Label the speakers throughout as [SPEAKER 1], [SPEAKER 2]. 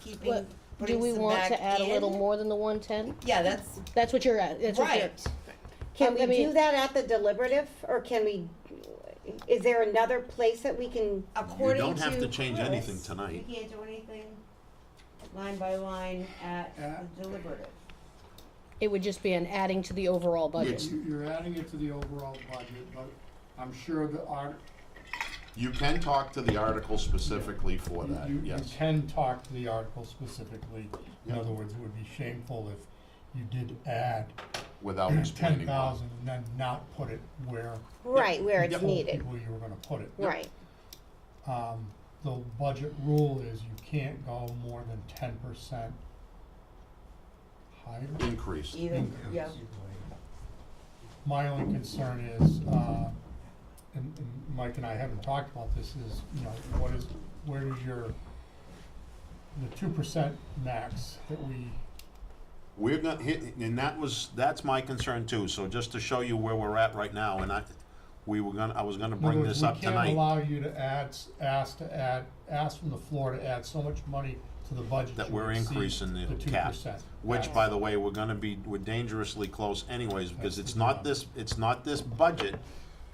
[SPEAKER 1] keeping,
[SPEAKER 2] What, do
[SPEAKER 1] putting
[SPEAKER 2] we
[SPEAKER 1] some
[SPEAKER 2] want
[SPEAKER 1] back
[SPEAKER 2] to add a little
[SPEAKER 1] in?
[SPEAKER 2] more than the one ten?
[SPEAKER 1] Yeah, that's
[SPEAKER 2] That's what you're at, that's what you're.
[SPEAKER 1] right.
[SPEAKER 2] I
[SPEAKER 3] Can we
[SPEAKER 2] mean-
[SPEAKER 3] do that at the deliberative, or can we, is there another place that we can,
[SPEAKER 1] According to
[SPEAKER 4] don't have to change
[SPEAKER 1] Chris,
[SPEAKER 4] anything tonight.
[SPEAKER 1] You can't do anything line by line at
[SPEAKER 5] Yeah.
[SPEAKER 1] the deliberative.
[SPEAKER 2] It would just be an adding to the overall budget.
[SPEAKER 5] You- You're adding it to the overall budget, but I'm sure the art,
[SPEAKER 4] You can talk to the article specifically for
[SPEAKER 6] You-
[SPEAKER 4] that,
[SPEAKER 6] You, you
[SPEAKER 4] yes.
[SPEAKER 6] can talk to the article specifically. In
[SPEAKER 4] Yeah.
[SPEAKER 6] other words, it would be shameful if you did add
[SPEAKER 4] Without
[SPEAKER 6] ten
[SPEAKER 4] explaining why.
[SPEAKER 6] thousand and then not put it where
[SPEAKER 3] right, where
[SPEAKER 6] you
[SPEAKER 3] it's
[SPEAKER 6] told
[SPEAKER 3] needed?
[SPEAKER 6] people you were gonna put it.
[SPEAKER 3] Right,
[SPEAKER 6] Um, the budget rule is you can't go more than ten percent higher.
[SPEAKER 4] Increase.
[SPEAKER 1] Either, yeah,
[SPEAKER 6] My only concern is, uh, and, and Mike and I haven't talked about this, is, you know, what is, where is your, the two percent max that we,
[SPEAKER 4] We're gonna hit, and that was, that's my concern too, so just to show you where we're at right now, and I, we were gonna, I was gonna
[SPEAKER 6] in other
[SPEAKER 4] bring
[SPEAKER 6] words,
[SPEAKER 4] this up
[SPEAKER 6] we can't
[SPEAKER 4] tonight,
[SPEAKER 6] allow you to add, s- ask to add, ask from the floor to add so much money to the budget
[SPEAKER 4] That
[SPEAKER 6] you
[SPEAKER 4] we're
[SPEAKER 6] exceed
[SPEAKER 4] increasing the
[SPEAKER 6] two
[SPEAKER 4] cap,
[SPEAKER 6] percent.
[SPEAKER 4] which, by the way, we're gonna be, we're dangerously close anyways, because it's not this, it's not this budget,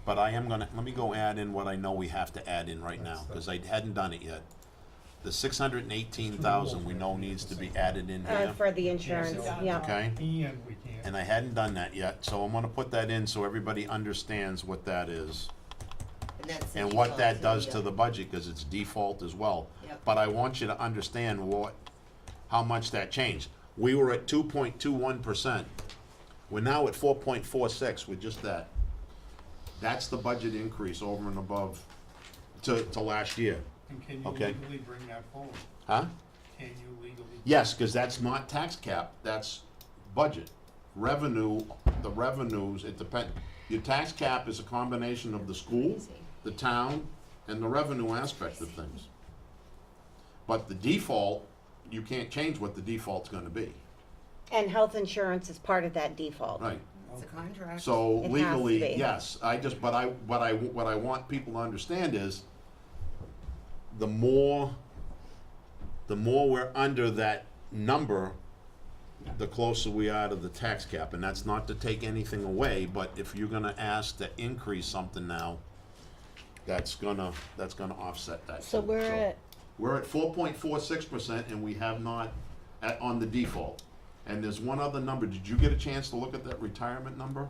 [SPEAKER 4] but I am gonna, let me go add in what I know we have to add in right now, because I hadn't done it yet. The six hundred and eighteen thousand we know needs to be added in
[SPEAKER 3] uh,
[SPEAKER 4] here,
[SPEAKER 3] for the insurance, yeah.
[SPEAKER 4] okay?
[SPEAKER 6] And we can't.
[SPEAKER 4] And I hadn't done that yet, so I'm gonna put that in so everybody understands what that is
[SPEAKER 1] and that's. the
[SPEAKER 4] and what
[SPEAKER 1] default
[SPEAKER 4] that does to
[SPEAKER 1] deal.
[SPEAKER 4] the budget, cause it's default as well.
[SPEAKER 1] Yep.
[SPEAKER 4] But I want you to understand what, how much that changed. We were at two point two one percent. We're now at four point four six with just that. That's the budget increase over and above to, to last year,
[SPEAKER 6] And can you
[SPEAKER 4] Okay.
[SPEAKER 6] legally bring that forward?
[SPEAKER 4] huh?
[SPEAKER 6] Can you legally?
[SPEAKER 4] Yes, cause that's not tax cap, that's budget. Revenue, the revenues, it depend, your tax cap is a combination of the school, the town, and the revenue aspect of things. But the default, you can't change what the default's gonna be,
[SPEAKER 3] And health insurance is part of that default.
[SPEAKER 4] right?
[SPEAKER 1] It's a contract.
[SPEAKER 3] It
[SPEAKER 4] So
[SPEAKER 3] has to be.
[SPEAKER 4] legally, yes, I just, but I, what I, what I want people to understand is the more, the more we're under that number, the closer we are to the tax cap, and that's not to take anything away, but if you're gonna ask to increase something now, that's gonna, that's gonna offset that.
[SPEAKER 2] So we're at,
[SPEAKER 4] We're at four point four six percent and we have not, at, on the default. And there's one other number, did you get a chance to look at that retirement number?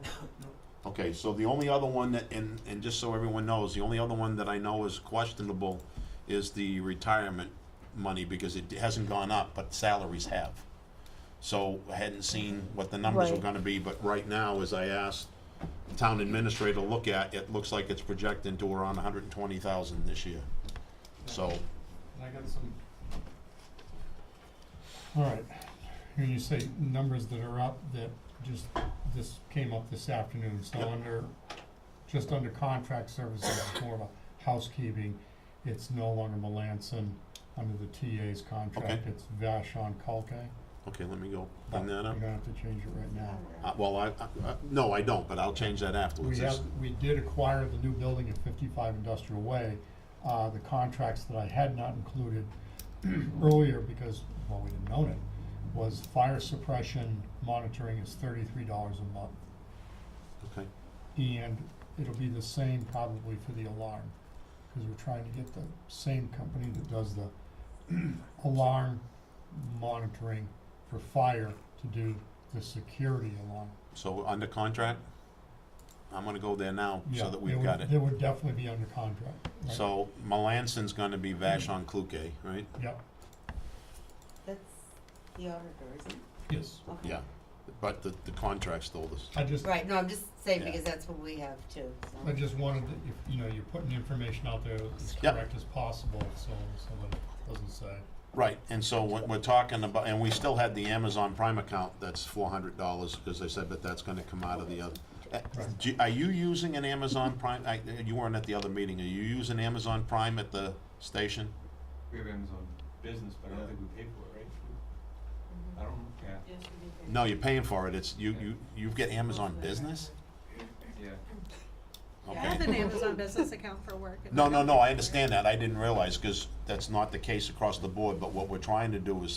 [SPEAKER 4] Okay, so the only other one that, and, and just so everyone knows, the only other one that I know is questionable is the retirement money, because it hasn't gone up, but salaries have. So I hadn't seen what the numbers were
[SPEAKER 2] Right.
[SPEAKER 4] gonna be, but right now, as I asked the town administrator to look at, it looks like it's projecting to around hundred and twenty thousand this year. So,
[SPEAKER 6] And I got some. Alright, when you say numbers that are up, that just, this came up this afternoon, so
[SPEAKER 4] Yep.
[SPEAKER 6] under, just under contract services, it's more of a housekeeping. It's no longer Melanson under the TA's contract,
[SPEAKER 4] Okay.
[SPEAKER 6] it's Vashon Kalke.
[SPEAKER 4] Okay, let me go
[SPEAKER 6] but
[SPEAKER 4] bring that up.
[SPEAKER 6] You're gonna have to change it right now.
[SPEAKER 4] Uh, well, I, I, I- no, I don't, but I'll change that
[SPEAKER 6] We
[SPEAKER 4] afterwards.
[SPEAKER 6] have,
[SPEAKER 4] That's-
[SPEAKER 6] we did acquire the new building at fifty-five Industrial Way. Uh, the contracts that I had not included earlier because, well, we didn't own it, was fire suppression monitoring is thirty-three dollars a month.
[SPEAKER 4] Okay,
[SPEAKER 6] And it'll be the same probably for the alarm, cause we're trying to get the same company that does the alarm monitoring for fire to do the security alarm.
[SPEAKER 4] so we're under contract? I'm gonna go there now
[SPEAKER 6] Yeah,
[SPEAKER 4] so that
[SPEAKER 6] they
[SPEAKER 4] we've
[SPEAKER 6] would-
[SPEAKER 4] got it.
[SPEAKER 6] They would definitely be under contract, right?
[SPEAKER 4] So Melanson's gonna be Vashon Kluke, right?
[SPEAKER 6] Yep.
[SPEAKER 1] That's the auditor, isn't it?
[SPEAKER 6] Yes.
[SPEAKER 1] Okay.
[SPEAKER 4] Yeah, but the, the contract's told us.
[SPEAKER 6] I just,
[SPEAKER 1] Right, no, I'm just saying
[SPEAKER 4] Yeah.
[SPEAKER 1] because that's what we have too, so.
[SPEAKER 6] I just wanted to, if, you know, you're putting information out there as
[SPEAKER 4] Yep.
[SPEAKER 6] correct as possible, so someone doesn't say.
[SPEAKER 4] Right, and so what we're talking about, and we still had the Amazon Prime account that's four hundred dollars, because they said, but that's gonna come out of the other. Uh,
[SPEAKER 6] Right.
[SPEAKER 4] do- Are you using an Amazon Prime, I, you weren't at the other meeting, are you using Amazon Prime at the station?
[SPEAKER 7] We have Amazon Business, but I don't think we pay for it, right? I don't, yeah,
[SPEAKER 4] No, you're paying for it, it's, you, you, you get Amazon Business?
[SPEAKER 7] yeah.
[SPEAKER 8] I have
[SPEAKER 4] Okay.
[SPEAKER 8] an Amazon business account for work. and
[SPEAKER 4] No, no, no, I understand that, I didn't realize, because that's not the case across the board, but what we're trying to do is